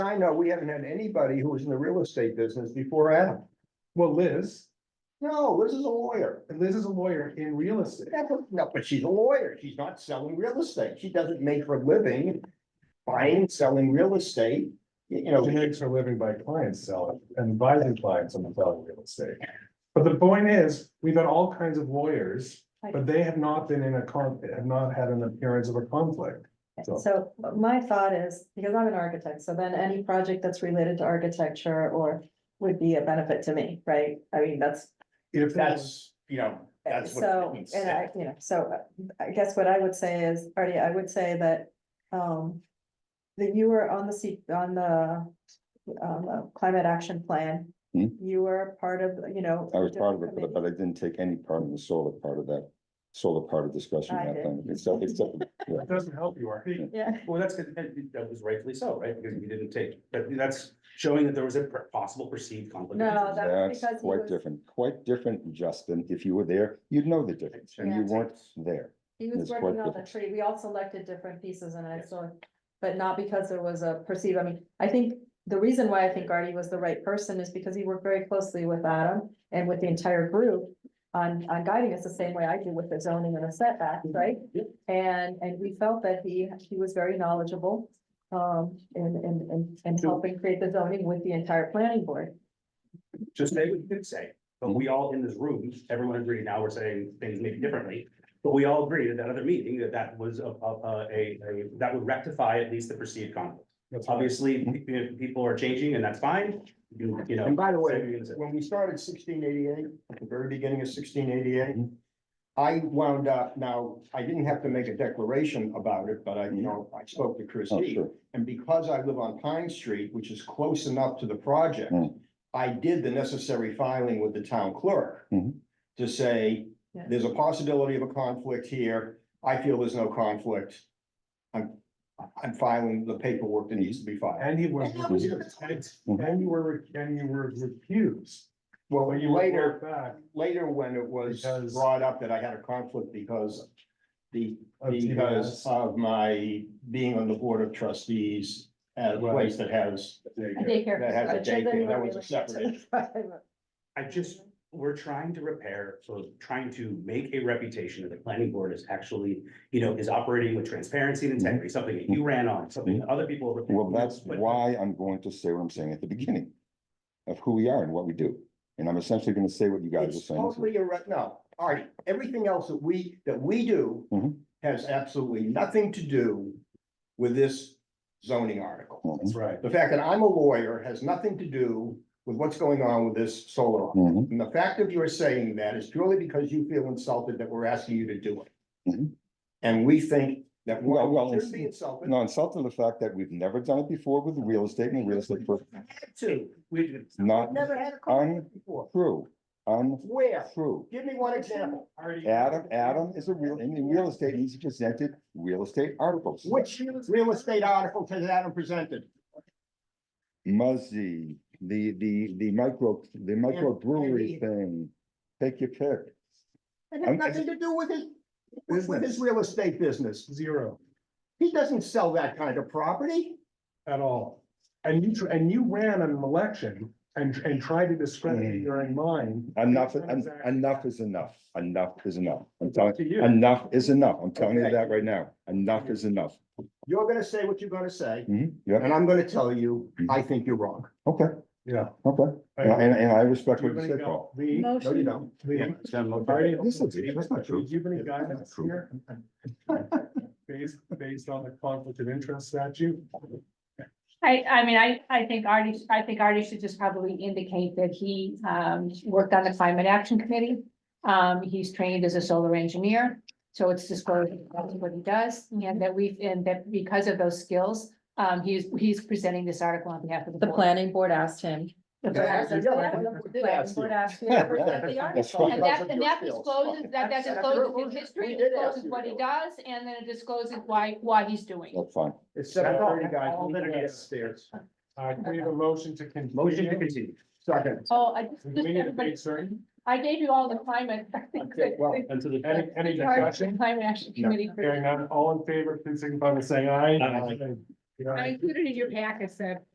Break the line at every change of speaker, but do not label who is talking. I know, we haven't had anybody who was in the real estate business before Adam.
Well, Liz,
No, Liz is a lawyer.
and Liz is a lawyer in real estate.
Yeah, but- No, but she's a lawyer. She's not selling real estate. She doesn't make her living buying, selling real estate. You you know,
She makes her living by clients selling and advising clients on the value of real estate.
But the point is, we've had all kinds of lawyers, but they have not been in a con, have not had an appearance of a conflict. So-
So my thought is, because I'm an architect, so then any project that's related to architecture or would be a benefit to me, right? I mean, that's,
If
that's, you know, that's what.
so,
means.
and I, you know, so uh, I guess what I would say is, Artie, I would say that, um. That you were on the seat, on the, um, uh, climate action plan.
Hmm.
You were part of, you know.
I was part of it,
different
but but I didn't take any part in the solar part of that, solar part of discussion.
I
that
did.
time. Except, except, yeah.
it doesn't help you, are
committee. Yeah,
Well, that's, good, and that was rightfully so, right? Because you didn't take, but that's showing that there was a per- possible perceived conflict.
No,
of interest.
that- That's
That's
because he
quite
was-
different, quite different, Justin. If you were there, you'd know the difference and you
Yeah.
weren't there.
he was
It's quite
working on the
different.
tree. We all selected different pieces and I
Yes.
saw. But not because there was a perceived, I mean, I think the reason why I think Artie was the right person is because he worked very closely with Adam and with the entire group. On, on guiding us the same way I do with the zoning and the setbacks,
Mm-hmm.
right?
Yep.
And, and we felt that he, he was very knowledgeable. Um, in, in, in, in
So-
helping create the zoning with the entire planning board.
Just say what you did say, but we all in this room, everyone agreed, now we're saying things maybe differently. But we all agreed at that other meeting that that was a, a, a- a, a- that would rectify at least the perceived conflict.
they?
Obviously, pe- pe- people are changing and that's fine, you, you know.
And by the
say
way,
what you're gonna say.
when we started sixteen eighty-eight, at the very beginning of sixteen eighty-eight, I wound up, now, I didn't have to make a declaration about it, but I, you know, I spoke to
Oh,
Christie.
sure.
And because I live on Pine Street, which is close enough to the project,
Mm.
I did the necessary filing with the town clerk.
Mhm.
To say,
Yeah.
there's a possibility of a conflict here, I feel there's no conflict. I'm, I'm filing the paperwork that needs to be filed.
And he was.
And that was your
recused. And you were, and you were recused.
Well,
But you
later,
were brought back
later when it was
Because-
brought up that I had a conflict because the,
of
because
TBS.
of my being on the board of trustees at a
Right.
place that has,
Daycare.
That has a
I'm sure
daycare. That
you
was a
were-
separate
I just, we're trying to repair, so trying to make a reputation that the planning board is actually, you know, is operating with transparency and integrity, something that you ran on, something that other people. have-
Well, that's
But-
why I'm going to say what I'm saying at the beginning of who we are and what we do. And I'm essentially gonna say what you guys are
it's
saying.
totally irre, no, all right, everything else that we, that we do
Mhm.
has absolutely nothing to do with this zoning article.
Mhm,
Right.
The fact that I'm a lawyer has nothing to do with what's going on with this solar. article.
mhm.
And the fact of your saying that is purely because you feel insulted that we're asking you to do it.
Mhm.
And we think that
Well, well,
one shouldn't be
it's-
insulted.
No, insulted the fact that we've never done it before with real estate and real estate. for-
Two,
We,
Not
never had a conflict before.
true,
Where?
untrue.
Give me one example.
Adam, Adam is a real, in in real estate, he's presented real estate articles.
Which real estate article has Adam presented?
Muzzy, the, the, the micro, the micro
Andy.
brewery thing. Take your pick.
It has
I'm-
nothing to do with his, with with his real estate business.
Zero
He doesn't sell that kind of property.
at all. And you, tr- and you ran an election and, and tried to discredit
Mm.
your own mind.
Enough, en- enough is enough. Enough is enough. I'm telling,
To you.
enough is enough. I'm telling you
Okay.
that right now. Enough is enough.
You're gonna say what you're gonna say,
Mhm, yeah,
and I'm gonna tell you, I think you're wrong.
okay,
Yeah.
okay.
I
And,
agree.
and and I respect
Do you
what
have
you
any
said,
gu-
Paul.
Lee,
No, you don't.
Lee, Artie,
Okay, This is, that's not
do
true.
you have any
That's not
guidance
true.
here? Based, based on the conflict of interest statute?
I, I mean, I, I think Artie, I think Artie should just probably indicate that he, um, worked on the climate action committee. Um, he's trained as a solar engineer, so it's disclosed, that's what he does, and that we've, and that because of those skills, um, he's, he's presenting this article on behalf of the
The
board.
planning board asked him.
The
Yeah,
plan.
actually, yeah, I remember we did ask you.
That's right.
And that, and that discloses, that, that
That's
discloses
true.
his history,
We did ask
discloses
you
what
to
he
do it.
does, and then it discloses why, why he's doing. it.
That's fine.
It's seven thirty, guys. We need to get
Yes.
upstairs.
Uh, can we have a motion to continue?
motion to continue.
Second.
Oh, I
Do We
just,
need a
everybody,
date certain.
I gave you all the climate.
Okay, well,
Until the.
Any, any
Charge to the
discussion?
Climate Action
No.
Committee.
Hearing none, all in favor, please signify by saying aye.
Aye.
Yeah.
I included in your packet that